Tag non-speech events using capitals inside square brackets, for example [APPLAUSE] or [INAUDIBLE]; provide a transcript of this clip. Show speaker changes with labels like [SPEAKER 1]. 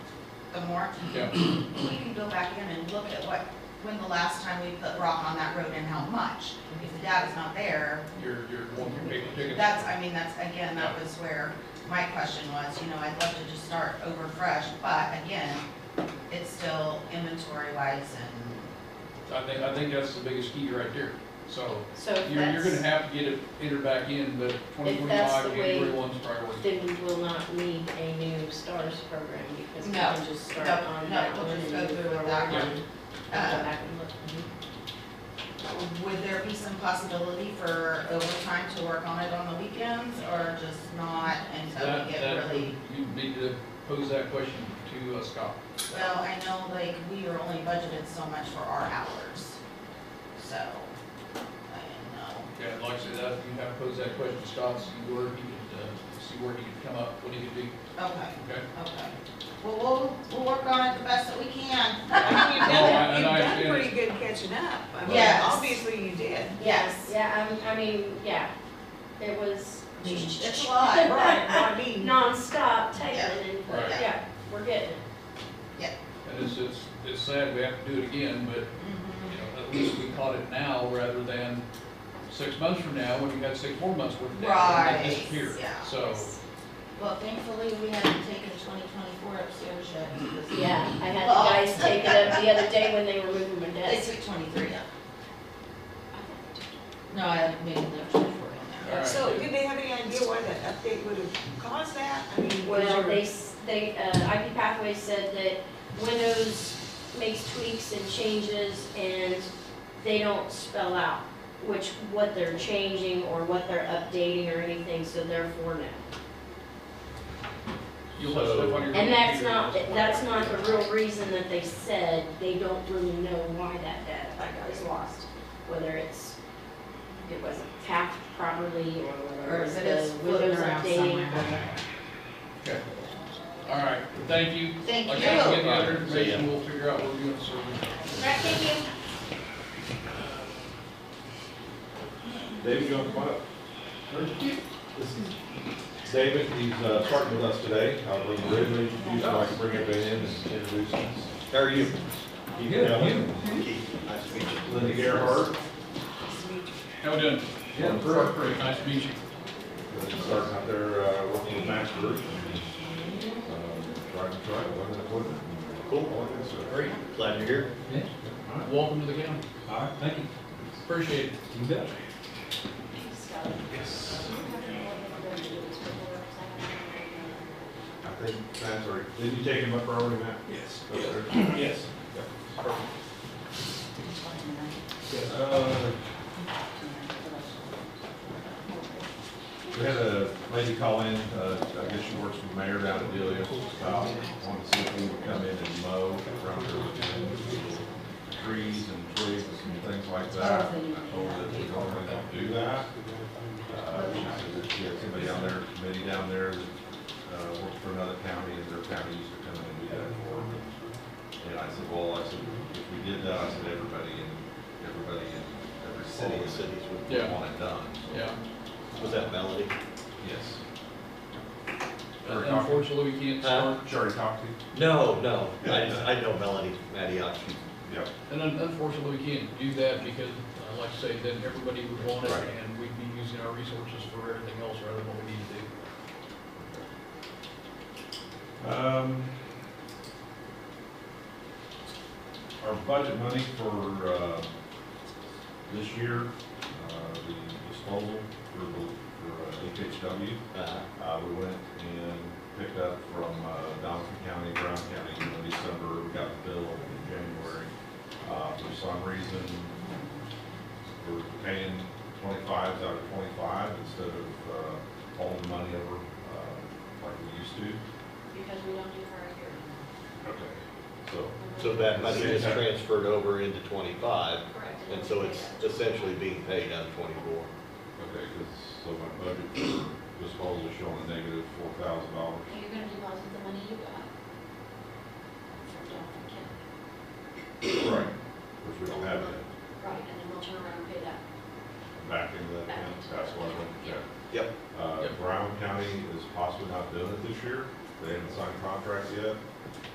[SPEAKER 1] the more,
[SPEAKER 2] Yeah,
[SPEAKER 1] we can go back in and look at what, when the last time we put rock on that road and how much. If the data's not there,
[SPEAKER 2] you're, you're one big ticket.
[SPEAKER 1] that's, I mean, that's, again, that was where my question was, you know, I'd love to just start over fresh, but again, it's still inventory wise and,
[SPEAKER 2] I think, I think that's the biggest key right there. So
[SPEAKER 3] So if
[SPEAKER 2] you're, you're gonna
[SPEAKER 3] that's,
[SPEAKER 2] have to get it entered back in, but twenty
[SPEAKER 3] that's the
[SPEAKER 2] twenty-five,
[SPEAKER 3] way-
[SPEAKER 2] January one's priority.
[SPEAKER 3] then we will not need a new STARS program because we
[SPEAKER 1] No,
[SPEAKER 3] can just start
[SPEAKER 1] no,
[SPEAKER 3] on
[SPEAKER 1] no,
[SPEAKER 3] that
[SPEAKER 1] we'll
[SPEAKER 3] one and
[SPEAKER 1] just
[SPEAKER 3] move
[SPEAKER 1] go through with
[SPEAKER 3] forward.
[SPEAKER 1] that
[SPEAKER 2] one.
[SPEAKER 3] and Go
[SPEAKER 1] uh,
[SPEAKER 3] back and look. Mm-hmm.
[SPEAKER 1] Would there be some possibility for overtime to work on it on the weekends or just not until
[SPEAKER 2] That,
[SPEAKER 1] we get
[SPEAKER 2] that,
[SPEAKER 1] really?
[SPEAKER 2] you need to pose that question to uh, Scott.
[SPEAKER 1] Well, I know like we are only budgeted so much for our hours, so I don't know.
[SPEAKER 2] Yeah, like I said, that, you have to pose that question to Scott, see where he could, uh, see where he could come up, what he could do,
[SPEAKER 1] Okay,
[SPEAKER 2] okay?
[SPEAKER 1] okay. Well, we'll, we'll work on it the best that we can.
[SPEAKER 4] I mean, You've
[SPEAKER 2] No, Oh, I-
[SPEAKER 4] done,
[SPEAKER 2] and
[SPEAKER 4] you've
[SPEAKER 2] I
[SPEAKER 4] done
[SPEAKER 2] understand.
[SPEAKER 4] pretty good catching up. I mean,
[SPEAKER 1] Yes.
[SPEAKER 4] Obviously you did.
[SPEAKER 1] Yes.
[SPEAKER 3] Yeah, I'm- I mean, yeah, it was mm. [LAUGHS]
[SPEAKER 1] It's a lot,
[SPEAKER 4] Right, I mean,
[SPEAKER 3] nonstop typing and,
[SPEAKER 2] Right.
[SPEAKER 3] yeah, we're getting it.
[SPEAKER 2] And it's, it's, it's sad we have to do it again, but,
[SPEAKER 1] Mm-hmm.
[SPEAKER 2] you know, at least we caught it now rather than six months from now, when you got six more months worth of data, and
[SPEAKER 1] Right,
[SPEAKER 2] it disappeared.
[SPEAKER 1] yeah.
[SPEAKER 2] So,
[SPEAKER 1] Well, thankfully, we haven't taken twenty twenty-four upstairs yet.
[SPEAKER 3] Yeah, I had
[SPEAKER 1] Well-
[SPEAKER 3] the guys take
[SPEAKER 1] [LAUGHS]
[SPEAKER 3] it up the other day when they were moving my
[SPEAKER 1] They
[SPEAKER 3] desk.
[SPEAKER 1] took twenty-three up. No, I made them twenty-four in there.
[SPEAKER 2] all right.
[SPEAKER 4] so did they have any idea why that update would have caused that? I mean, was
[SPEAKER 3] Well,
[SPEAKER 4] your-
[SPEAKER 3] they, s- they, uh, IP Pathways said that Windows makes tweaks and changes and they don't spell out which, what they're changing or what they're updating or anything, so therefore no.
[SPEAKER 2] You'll have stuff on your.
[SPEAKER 3] And that's
[SPEAKER 2] computer.
[SPEAKER 3] not, that's not the real reason that they said they don't really know why that data was lost. Whether it's, it wasn't tapped properly or
[SPEAKER 1] Or
[SPEAKER 3] whether
[SPEAKER 1] is it
[SPEAKER 3] the
[SPEAKER 1] is floating
[SPEAKER 3] Windows
[SPEAKER 1] around
[SPEAKER 3] updating or
[SPEAKER 1] somewhere?
[SPEAKER 2] Okay. All right, thank you.
[SPEAKER 1] Thank
[SPEAKER 2] Like I said,
[SPEAKER 1] you.
[SPEAKER 2] get the other
[SPEAKER 5] Thank you. See ya.
[SPEAKER 2] information, we'll figure out where we're gonna serve it.
[SPEAKER 3] Right, thank you.
[SPEAKER 5] David, you want to come on up? This is David, he's uh, starting with us today. I'll bring him in, introduce him, I can bring everybody in and introduce him. How are you? Keith Allen.
[SPEAKER 6] Nice to meet you.
[SPEAKER 5] Linda Gerhart,
[SPEAKER 2] How we doing?
[SPEAKER 5] Yeah.
[SPEAKER 2] Great, great, nice to meet you.
[SPEAKER 5] starting out there uh, working with Max Uh, Group. Driving truck, running equipment. Cool. All that good stuff.
[SPEAKER 2] Great.
[SPEAKER 6] Glad you're here.
[SPEAKER 2] Welcome to the county.
[SPEAKER 5] All right, thank you.
[SPEAKER 2] Appreciate it.
[SPEAKER 5] You bet. I think Matt's already, did you take him up early, Matt? Yes.
[SPEAKER 2] Yes.
[SPEAKER 5] Uh, We had a lady call in, uh, I guess she works for the mayor down in Delia, about wanting to see if we would come in and mow around her trees and twigs and things like that. I told her that we normally don't do that. Uh, she said that she had somebody down there, committee down there that, uh, worked for another county and their county used to come in and do that for her. And I said, well, I said, if we did that, I said, everybody in, everybody in every
[SPEAKER 6] City of
[SPEAKER 5] city
[SPEAKER 6] Cities with, um,
[SPEAKER 5] would
[SPEAKER 2] Yeah.
[SPEAKER 5] want it done. So,
[SPEAKER 2] Yeah.
[SPEAKER 6] was that Melody?
[SPEAKER 5] Yes. Sherry talked,
[SPEAKER 2] Unfortunately, we can't
[SPEAKER 6] Huh?
[SPEAKER 2] start,
[SPEAKER 5] Sherry talked to you?
[SPEAKER 6] No, no. I just, I know Melody Mattiak. She's
[SPEAKER 5] Yeah.
[SPEAKER 2] and un- unfortunately, we can't do that because, uh, like I say, then everybody would want it
[SPEAKER 5] Right.
[SPEAKER 2] and we'd be using our resources for everything else rather than what we need to do.
[SPEAKER 5] Um, Our budget money for, uh, this year, uh, the disposal for, the- for uh, HHW,
[SPEAKER 6] uh,
[SPEAKER 5] uh, we went and picked up from, uh, Donaldson County, Brown County, you know, December, we got the bill in January. Uh, for some reason, we're paying twenty-fives out of twenty-five instead of, uh, holding money over, uh, like we used to.
[SPEAKER 3] Because we don't do current hearing.
[SPEAKER 5] Okay. So,
[SPEAKER 6] so that money is transferred over into twenty-five, and so it's essentially being paid out of twenty-four.
[SPEAKER 5] okay, because, so my budget for disposal is showing a negative four thousand dollars.
[SPEAKER 7] You're gonna do most of the money you got. From Johnson County.
[SPEAKER 5] Right. Which we don't have that
[SPEAKER 7] Right, and then we'll turn around and pay that.
[SPEAKER 5] back into that account, that's why I went there.
[SPEAKER 6] Yep.
[SPEAKER 5] Uh,
[SPEAKER 2] Yep.
[SPEAKER 5] Brown County is possibly not doing it this year, they haven't signed contracts yet.